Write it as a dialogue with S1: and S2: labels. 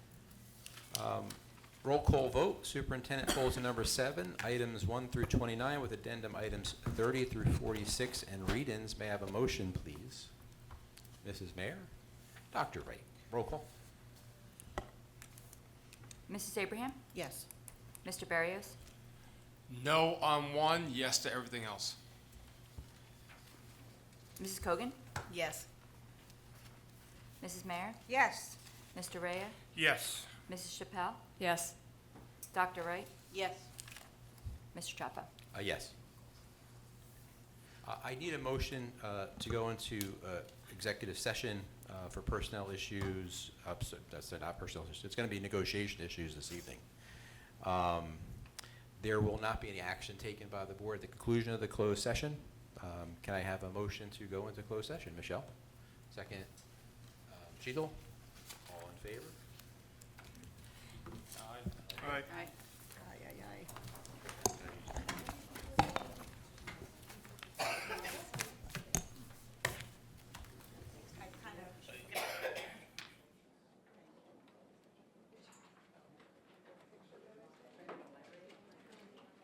S1: Um, Roll call vote, Superintendent Bulletin Number 7, items 1 through 29 with addendum items 30 through 46 and read-ins. May I have a motion, please? Mrs. Mayor? Dr. Wright, roll call.
S2: Mrs. Abraham?
S3: Yes.
S2: Mr. Barrios?
S4: No on one, yes to everything else.
S2: Mrs. Cogan?
S3: Yes.
S2: Mrs. Mayer?
S3: Yes.
S2: Mr. Rea?
S4: Yes.
S2: Mrs. Chappell?
S5: Yes.
S2: Dr. Wright?
S3: Yes.
S2: Mr. Chapa?
S1: Uh, Yes. Uh, I need a motion uh, to go into uh, executive session uh, for personnel issues, uh, ups- that's not personnel, issues. it's going to be negotiation issues this evening. Um, There will not be any action taken by the board at the conclusion of the closed session. Um, Can I have a motion to go into closed session? Michelle? Second. um, Sheetal? Uh, All in favor?